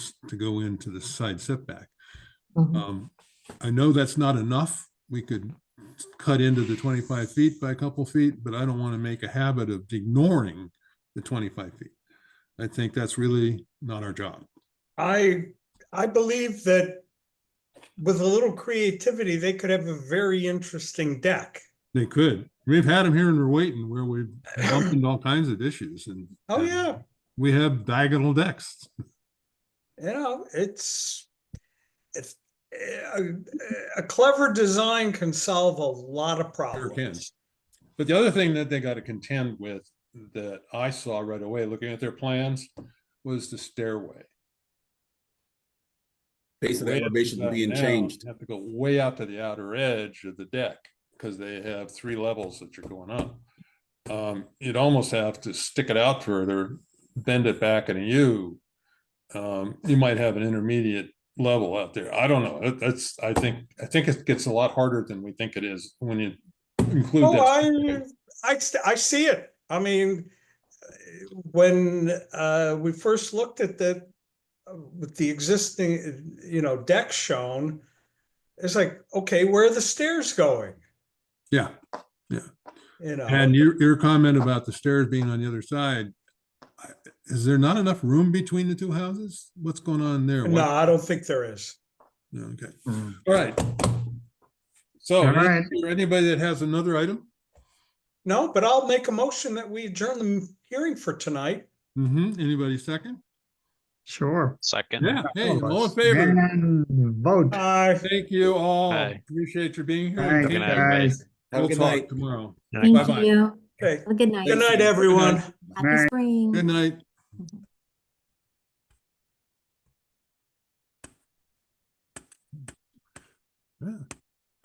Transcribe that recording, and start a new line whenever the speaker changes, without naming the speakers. s- to go into the side setback.
Mhm.
Um, I know that's not enough. We could cut into the twenty-five feet by a couple feet, but I don't want to make a habit of ignoring the twenty-five feet. I think that's really not our job.
I, I believe that with a little creativity, they could have a very interesting deck.
They could. We've had them here and we're waiting where we've bumped into all kinds of issues and.
Oh,
and
yeah,
We have diagonal decks.
you know, it's, it's, a, a clever design can solve a lot of
can.
problems.
But the other thing that they got to contend with that I saw right away, looking at their plans, was the stairway.
based on
Way
the
up
elevation
and
being
down.
changed.
You Have to go way out to the outer edge of the deck, because they have three levels that you're going up. Um, you'd almost have to stick it out further, bend it back in a U. Um, you might have an intermediate level out there. I don't know. That- That's, I think, I think it gets a lot harder than we think it is when you include
Oh,
that.
I, I, st- I see it. I mean, when, uh, we first looked at the, with the existing, you know, deck shown, it's like, okay, where are the stairs going?
Yeah.
You know?
And your, your comment about the stairs being on the other side, I- is there not enough room between the two houses? What's going on there?
No,
Why-
I don't think there is.
no, Okay,
Mm.
all right. So,
All right.
is there anybody that has another item?
No, but I'll make a motion that we adjourn the hearing for tonight.
Mm-hmm, anybody second?
Sure.
Second.
Yeah, hey, all in favor?
And vote.
Uh,
Thank you all.
Aye.
Appreciate your being here.
Thank
Good
you,
Keep
night,
up.
everybody.
guys.
Have a
We'll
good
talk
night.
tomorrow. Bye-bye.
Thank you.
okay,
Have a good night.
good night, everyone.
Night.
Happy spring.
Good night. Yeah.